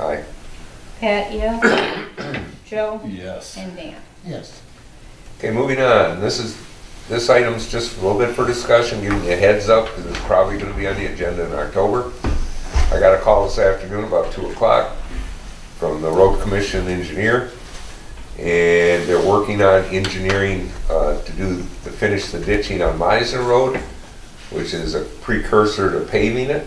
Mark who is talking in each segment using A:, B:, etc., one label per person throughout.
A: Aye.
B: Pat, yeah? Joe?
C: Yes.
B: And Dan?
D: Yes.
A: Okay, moving on. This is, this item's just a little bit for discussion, giving you a heads up, because it's probably gonna be on the agenda in October. I got a call this afternoon about two o'clock from the road commission engineer. And they're working on engineering, uh, to do, to finish the ditching on Meisner Road, which is a precursor to paving it.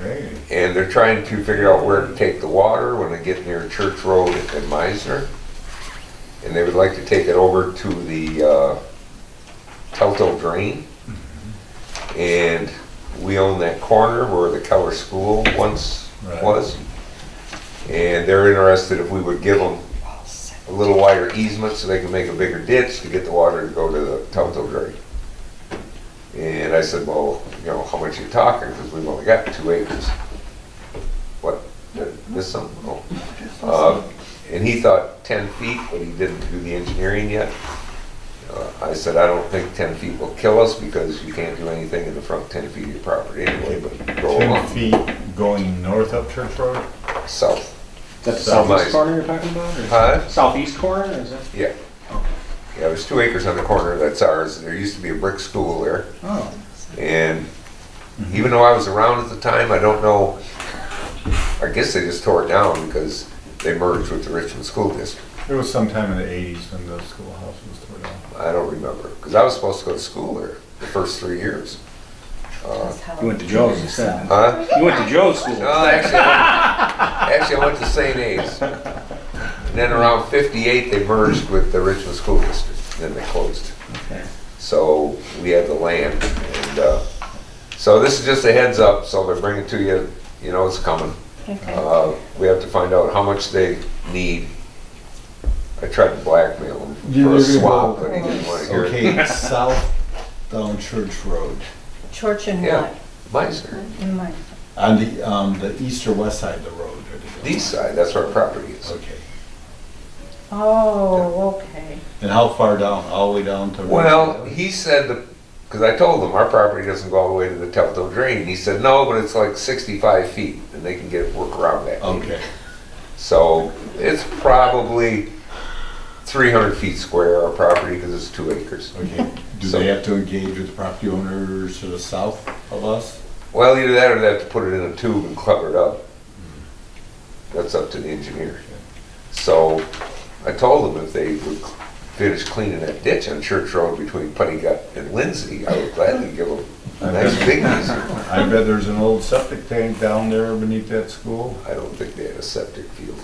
C: Okay.
A: And they're trying to figure out where to take the water when they get near Church Road and Meisner. And they would like to take it over to the uh, Telto Drain. And we own that corner where the Keller School once
C: Right.
A: was. And they're interested if we would give them a little wider easement so they can make a bigger ditch to get the water to go to the Telto Drain. And I said, well, you know, how much you talking? Because we've only got two acres. What, did I miss something? Oh. Uh, And he thought 10 feet, but he didn't do the engineering yet. Uh, I said, I don't think 10 feet will kill us because you can't do anything in the front 10 feet of your property anyway, but go
C: Ten
A: along
C: feet going north up Church Road?
A: south.
E: Is that the
C: South
E: southeast
A: Maze.
E: corner you're talking about? or-
A: Huh?
E: Southeast corner, or is that?
A: Yeah. Yeah, there's two acres on the corner, that's ours. There used to be a brick school there.
C: Oh. Mm-hmm.
A: And even though I was around at the time, I don't know, I guess they just tore it down because they merged with the Richmond School District.
C: It was sometime in the eighties when the schoolhouse was torn down.
A: I don't remember, because I was supposed to go to school there the first three years. Uh,
E: You went to Joe's instead.
A: Huh?
E: You went to Joe's school.
A: No, actually, I went- actually, I went to St. A's. And then around fifty-eight, they merged with the Richmond School District, then they closed.
E: Okay.
A: So we have the land, and, uh, so this is just a heads up, so they're bringing to you, you know it's coming.
B: Okay.
A: Uh, We have to find out how much they need. I tried to blackmail him
D: Yeah,
A: for a
D: they're gonna
A: swap,
D: go-
A: but he didn't want to hear it.
D: Okay, south down Church Road,
B: Church and
A: Yeah.
B: what?
A: Meisner,
B: In my,
D: on the, um, the east or west side of the road. or the-
A: east side, that's where our property is.
D: Okay,
B: oh, okay.
D: and how far down, all the way down to?
A: Well, he said, because I told him, our property doesn't go all the way to the Telto Drain. He said, no, but it's like 65 feet, and they can get, work around that.
D: Okay,
A: So it's probably 300 feet square, our property, because it's two acres.
D: okay, do
A: So-
D: they have to engage with the property owners to the south of us?
A: Well, either that or they have to put it in a tube and cover it up. That's up to the engineer. So I told them if they would cl- finish cleaning that ditch on Church Road between Putty Gut and Lindsay, I would gladly give them a nice big piece.
C: I bet there's an old septic tank down there beneath that school.
A: I don't think they had a septic field.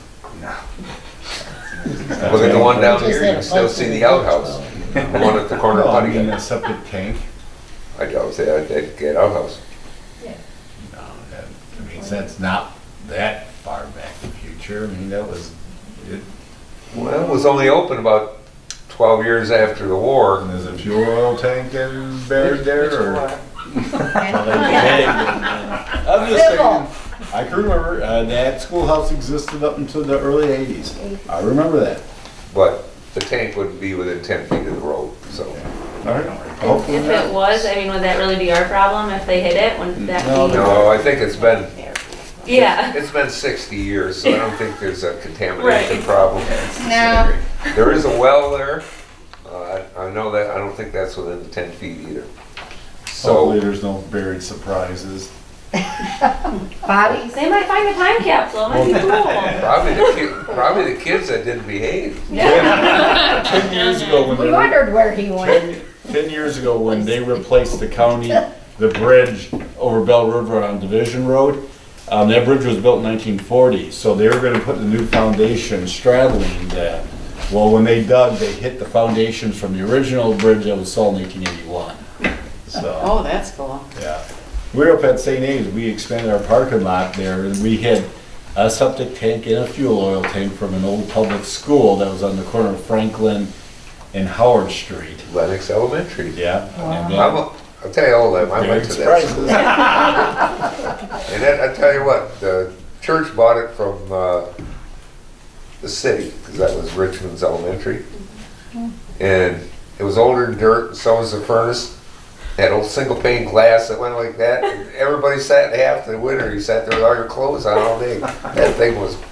A: Look at the one down here, you can still see the outhouse. The one at the corner
C: No,
A: of
C: I
A: Putty
C: mean,
A: Gut.
C: a septic tank.
A: I doubt they, they'd get outhouse.
C: No, Um, that, I mean, that's not that far back in the future. I mean, that was, it
A: Well, it was only open about 12 years after the war.
C: there's a fuel oil tank in buried there or?
B: Civil.
D: I can remember, uh, that schoolhouse existed up until the early eighties, I remember that.
A: but the tank wouldn't be within ten feet of the road, so.
C: All right, hopefully
F: If it
C: not.
F: was, I mean, would that really be our problem if they hit it? Wouldn't that
D: No,
F: be?
A: No, I think it's been,
F: Yeah,
A: it's been sixty years, so I don't think there's a contamination
F: Right.
A: problem.
B: No.
A: There is a well there, uh, I I know that, I don't think that's within the ten feet either.
C: Hopefully
A: So,
C: there's no buried surprises.
B: Bodies?
F: they might find a time capsule, it might
A: probably the ki,
F: be cool.
A: probably the kids that didn't behave.
D: Ten years ago when
B: We
D: they were-
B: wondered where he went.
D: Ten ten years ago, when they replaced the county, the bridge over Bell River on Division Road, um, that bridge was built in nineteen forty, so they were gonna put the new foundation straddling that. Well, when they dug, they hit the foundations from the original bridge that was sold in eighteen eighty-one, so,
G: Oh, that's cool.
D: yeah. We were up at St. A's, we expanded our parking lot there, and we had a septic tank and a fuel oil tank from an old public school that was on the corner of Franklin and Howard Street.
A: Lennox Elementary.
D: Yeah. and then-
A: I'm, a- I'll tell you all that, I went to that. And then, I tell you what, the church bought it from uh, the city, because that was Richmond's elementary. And it was older than dirt, so was the furnace. that old single pane glass that went like that. Everybody sat in half the winter. You sat there with all your clothes on all day. That thing was